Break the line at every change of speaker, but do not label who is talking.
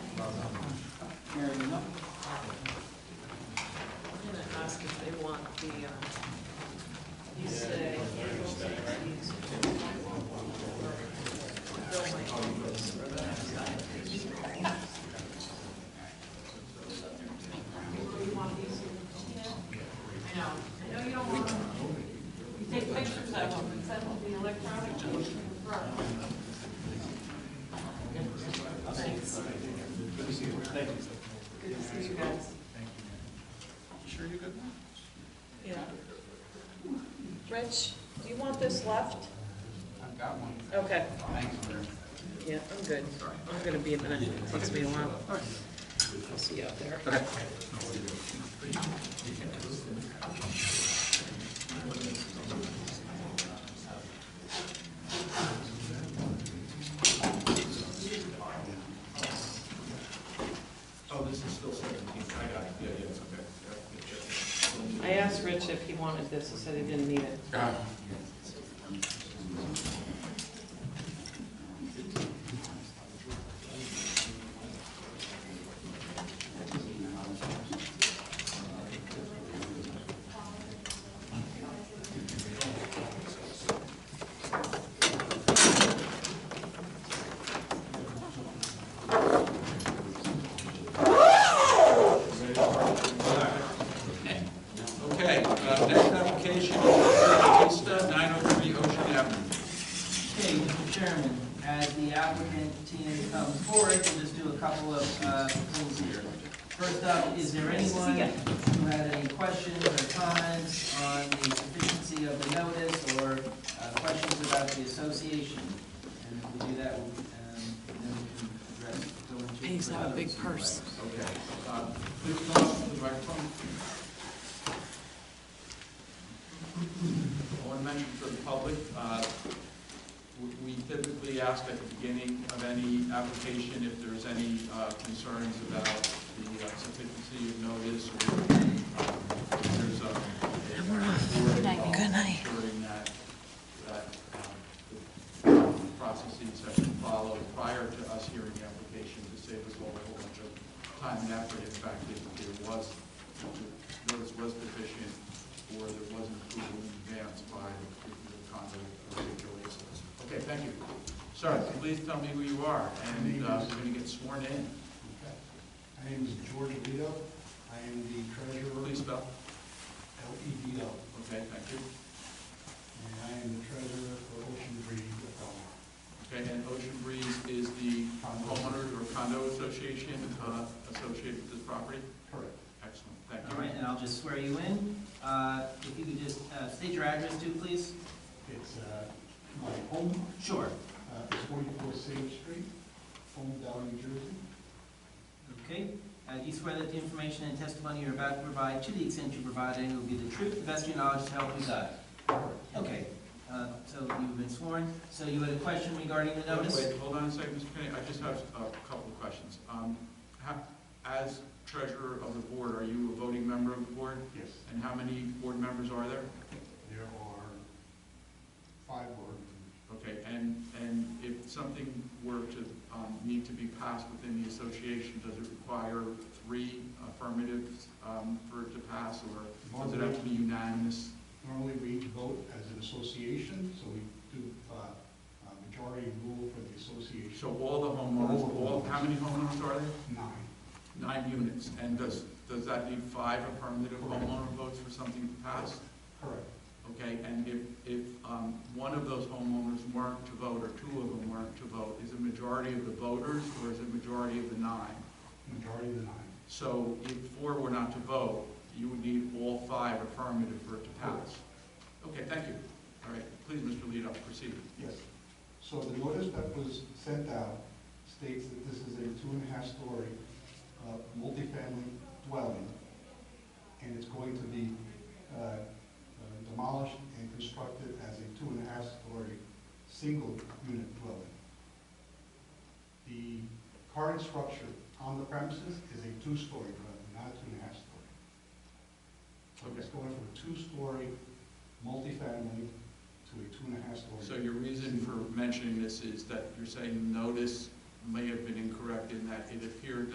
they want the, uh, you say. I know, I know you don't want, you take pictures of them and send them to the electronic. Thanks. Good to see you guys.
Sure you good?
Yeah. Rich, do you want this left?
I've got one.
Okay.
Thanks for
Yeah, I'm good. I'm gonna be a minute. It takes me a while. I'll see you out there.
Oh, this is still seventeen, I got it, yeah, yeah, it's okay.
I asked Rich if he wanted this. He said he didn't need it.
Okay, uh, next application, Batista, 903 Ocean Avenue.
Okay, Mr. Chairman, as the applicant team comes forward, we'll just do a couple of uh, things here. First up, is there anyone who had any questions or comments on the sufficiency of the notice or uh, questions about the association? And if we do that, we'll, um, then we can address, go into.
He's got a
others
big
who
purse.
might-
Okay. uh, Please come up to the microphone. I want to mention for the public, uh, w- we typically ask at the beginning of any application if there's any uh, concerns about the uh, sufficiency of notice or um, if there's a... Good night. Good night. During that, that um, the processes have been followed prior to us hearing the application to save us all a whole bunch of time and effort, in fact, if there was, if the notice was deficient, or there wasn't approval in advance by the the condo HOAs. Okay, thank you. Sir, please tell me who you are, and uh, you're going to get sworn in.
My name is George Lido. I am the treasurer,
Please spell.
L-E-D-O,
Okay, thank you.
and I am the treasurer for Ocean Breeze of Belmar.
Okay, and Ocean Breeze is the homeowners or condo association uh, associated with this property?
Correct.
Excellent, thank
All right,
you.
and I'll just swear you in. Uh, If you could just uh, state your address too, please?
It's uh, my home,
Sure.
uh, it's 44 Sage Street, Hometown, New Jersey.
Okay, uh, do you swear that the information and testimony you're about to provide, to the extent you provide any, will be the truth, the best of your knowledge, to help you God? Okay, uh, so you've been sworn, so you had a question regarding the notice?
Wait, hold on a second, Mr. Kenny, I just have a couple of questions. Um, ha- As treasurer of the board, are you a voting member of the board?
Yes.
And how many board members are there?
There are five board members.
Okay, and, and if something were to um, need to be passed within the association, does it require three affirmatives um, for it to pass, or does it have to be unanimous?
Normally, we each vote as an association, so we do uh, uh, majority rule for the association.
So all the homeowners, all, how many homeowners are there?
Nine.
Nine units, and does, does that need five affirmative homeowner votes for something to pass?
Correct.
Okay, and if, if um, one of those homeowners weren't to vote, or two of them weren't to vote, is it majority of the voters, or is it majority of the nine?
Majority of the nine.
So if four were not to vote, you would need all five affirmative for it to pass. Okay, thank you. All right, please, Mr. Lido, proceed.
Yes. So the notice that was sent out states that this is a two and a half story uh, multifamily dwelling, and it's going to be uh, uh, demolished and constructed as a two and a half story single unit dwelling. The current structure on the premises is a two story dwelling, not a two and a half story. So It's going from a two story multifamily to a two and a half story.
So your reason for mentioning this is that you're saying notice may have been incorrect in that it appeared